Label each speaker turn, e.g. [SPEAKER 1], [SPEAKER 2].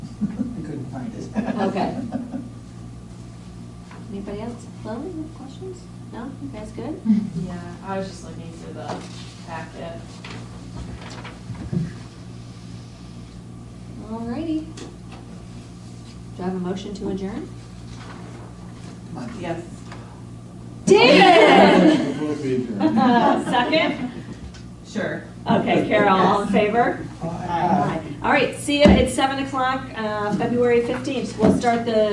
[SPEAKER 1] Okay. Anybody else? Chloe, any questions? No? You guys good?
[SPEAKER 2] Yeah, I was just looking through the packet.
[SPEAKER 1] Alrighty. Do I have a motion to adjourn?
[SPEAKER 2] Yes.
[SPEAKER 1] David!
[SPEAKER 3] We'll be adjourned.
[SPEAKER 1] Second?
[SPEAKER 2] Sure.
[SPEAKER 1] Okay, Carol, all in favor?
[SPEAKER 2] Aye.
[SPEAKER 1] All right, see you at seven o'clock, uh, February fifteenth. We'll start the